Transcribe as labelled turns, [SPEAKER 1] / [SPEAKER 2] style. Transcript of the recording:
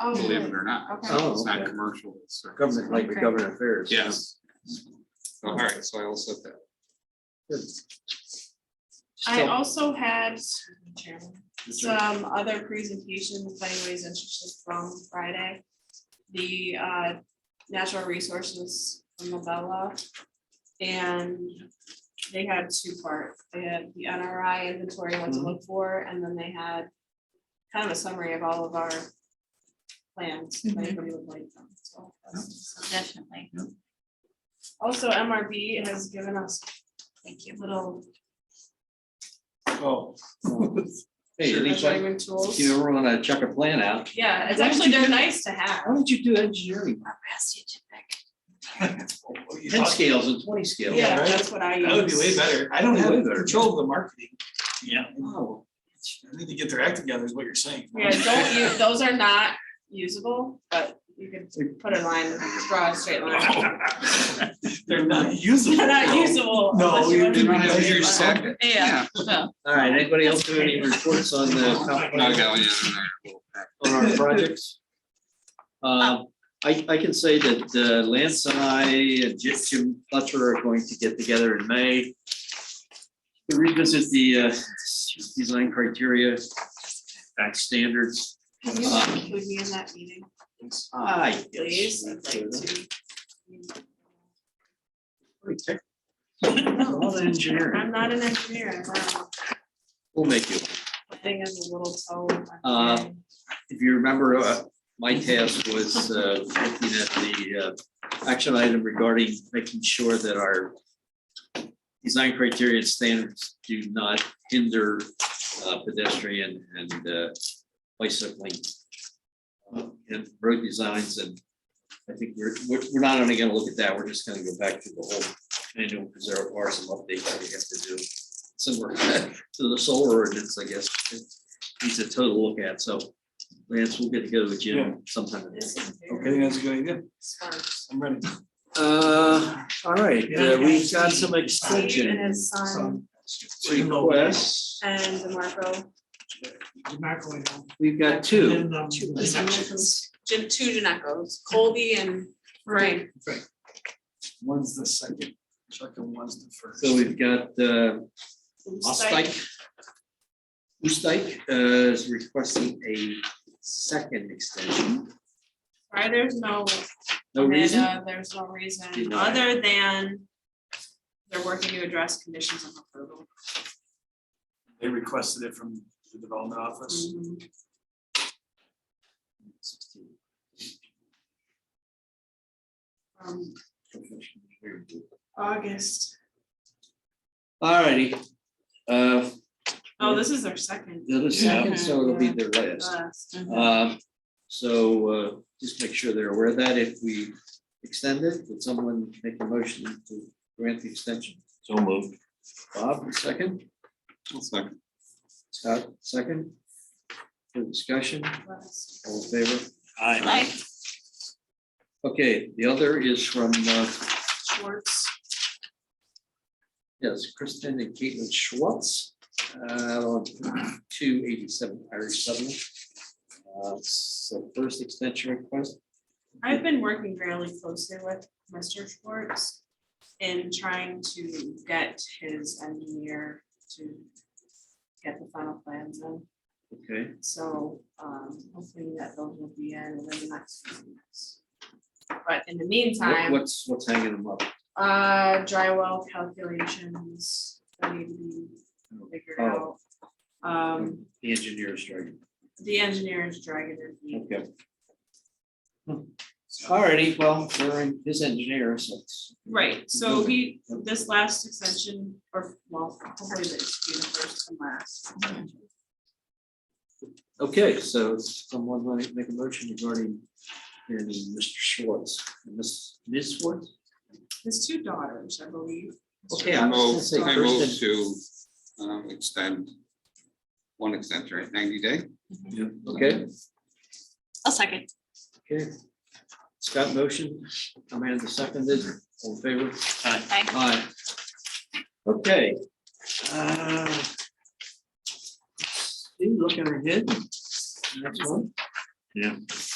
[SPEAKER 1] Oh,
[SPEAKER 2] believe
[SPEAKER 1] good.
[SPEAKER 2] it or not.
[SPEAKER 1] Okay.
[SPEAKER 3] Oh,
[SPEAKER 2] It's not
[SPEAKER 3] okay.
[SPEAKER 2] commercial. it's service.
[SPEAKER 3] Government, like the
[SPEAKER 1] Okay.
[SPEAKER 3] government affairs.
[SPEAKER 2] Yes. All right, so I will set that.
[SPEAKER 3] Good.
[SPEAKER 1] I
[SPEAKER 3] So-
[SPEAKER 1] also had some other presentations, if anybody's interested from Friday. The uh, natural resources from Mabella. And they had two parts. They had the NRI inventory, what
[SPEAKER 3] Mm-hmm.
[SPEAKER 1] to look for, and then they had kind of a summary of all of our plans, if
[SPEAKER 4] Mhm.
[SPEAKER 1] anybody would like them, so. that's-
[SPEAKER 4] Definitely,
[SPEAKER 1] Also, MRB has given us
[SPEAKER 4] thank you.
[SPEAKER 1] little
[SPEAKER 3] Oh. Hey, at least I,
[SPEAKER 1] measuring tools.
[SPEAKER 3] you ever wanna check a plan out?
[SPEAKER 1] Yeah, it's actually, they're nice to have.
[SPEAKER 3] Why don't you do engineering? Ten scales and twenty scales.
[SPEAKER 1] Yeah,
[SPEAKER 5] right?
[SPEAKER 1] that's what I use.
[SPEAKER 5] That would be way better. I don't have
[SPEAKER 3] Way better.
[SPEAKER 5] control of the marketing. Yeah.
[SPEAKER 3] Wow.
[SPEAKER 5] I need to get their act together is what you're saying.
[SPEAKER 1] Yeah, don't use, those are not usable, but you can put a line, draw a straight line.
[SPEAKER 5] They're not usable.
[SPEAKER 1] They're not usable.
[SPEAKER 5] No,
[SPEAKER 1] unless you
[SPEAKER 5] you
[SPEAKER 1] want to
[SPEAKER 2] Didn't
[SPEAKER 5] do
[SPEAKER 1] draw
[SPEAKER 2] I
[SPEAKER 5] not
[SPEAKER 1] a
[SPEAKER 2] have
[SPEAKER 5] use
[SPEAKER 1] straight
[SPEAKER 2] your
[SPEAKER 5] your
[SPEAKER 1] line.
[SPEAKER 2] second?
[SPEAKER 4] Yeah, well,
[SPEAKER 3] All right, anybody else do any reports on the,
[SPEAKER 2] No, I got one.
[SPEAKER 3] on our projects? Um, I, I can say that uh, Lance and I, and Jim- Jim Fletcher are going to get together in May. to Revisit the, uh, design criteria, back standards.
[SPEAKER 1] Can you include me in that meeting,
[SPEAKER 3] I guess.
[SPEAKER 1] please? I'd like to-
[SPEAKER 3] All the engineering,
[SPEAKER 1] I'm not an engineer, I'm not,
[SPEAKER 3] we'll make you.
[SPEAKER 1] the thing is a little toe.
[SPEAKER 3] Uh, If you remember, uh, my task was uh, looking at the uh, action item regarding making sure that our design criteria and standards do not hinder uh, pedestrian and uh, bicycling uh, and road designs and I think we're, we're we're not only gonna look at that, we're just gonna go back to the whole manual because there are some updates that we have to do similar to the solar ordinance, I guess. It Needs a total look at, so Lance, we'll get together with
[SPEAKER 5] Yeah.
[SPEAKER 3] Jim sometime.
[SPEAKER 1] This is
[SPEAKER 5] Okay, I think
[SPEAKER 1] very
[SPEAKER 5] that's a good idea.
[SPEAKER 1] sparse.
[SPEAKER 5] I'm ready.
[SPEAKER 3] Uh, all right,
[SPEAKER 5] uh, we've got
[SPEAKER 3] some
[SPEAKER 1] Steve and his son
[SPEAKER 3] requests.
[SPEAKER 1] and DeMarco,
[SPEAKER 3] We've got two.
[SPEAKER 1] two DeMarcos, Jim- two DeMarcos, Colby and Frank.
[SPEAKER 5] One's the second, Chuck and one's the first.
[SPEAKER 3] So we've got uh, Osteich. Osteich uh, is requesting a second extension.
[SPEAKER 1] Right, there's no
[SPEAKER 3] No reason?
[SPEAKER 1] Amanda, there's no reason,
[SPEAKER 3] Denied.
[SPEAKER 1] other than they're working to address conditions of approval.
[SPEAKER 5] They requested it from the development office.
[SPEAKER 1] Mm-hmm. From Um, August,
[SPEAKER 3] All righty. Uh,
[SPEAKER 1] oh, this is their second. uh,
[SPEAKER 3] the other second, so it'll be their last.
[SPEAKER 1] last.
[SPEAKER 3] Um, So uh, just make sure they're aware of that. If we extend it, would someone make a motion to grant the extension?
[SPEAKER 6] So moved.
[SPEAKER 3] Bob, second? Scott, second? For discussion,
[SPEAKER 1] Last.
[SPEAKER 3] all in favor?
[SPEAKER 6] Aye.
[SPEAKER 3] Okay, the other is from, uh,
[SPEAKER 1] Schwartz,
[SPEAKER 3] yes, Kristen and Caitlin Schwartz. uh, Two eighty-seven Irish Settlement. Uh, So first extension request,
[SPEAKER 1] I've been working fairly closely with Mr. Schwartz in trying to get his engineer to get the final plans in.
[SPEAKER 3] okay,
[SPEAKER 1] So um hopefully that those will be in within the next few weeks. But in the
[SPEAKER 3] What-
[SPEAKER 1] meantime,
[SPEAKER 3] what's, what's hanging them up?
[SPEAKER 1] uh drywall calculations that need to be figured out.
[SPEAKER 3] Oh.
[SPEAKER 1] Um
[SPEAKER 3] The engineer's dragging.
[SPEAKER 1] the engineer is dragging their feet.
[SPEAKER 3] Okay. Alrighty, Hmm. well, we're in his engineer, so it's-
[SPEAKER 1] Right, so he, this last extension, or well, hopefully this will be the first and last.
[SPEAKER 3] okay, so someone want to make a motion regarding hearing Mr. Schwartz, Miss, Ms. Schwartz?
[SPEAKER 1] His two daughters, I believe.
[SPEAKER 3] Okay,
[SPEAKER 2] I
[SPEAKER 3] I was gonna
[SPEAKER 2] move,
[SPEAKER 3] say
[SPEAKER 2] I move
[SPEAKER 3] Kristen.
[SPEAKER 2] to um, extend one extension, right, ninety day?
[SPEAKER 3] Okay,
[SPEAKER 4] I'll second.
[SPEAKER 3] okay. Scott motion, Amanda seconded, all in favor?
[SPEAKER 6] Aye.
[SPEAKER 4] Aye.
[SPEAKER 3] Aye. Okay. Uh, see, Looking ahead. Next one.
[SPEAKER 6] Yeah.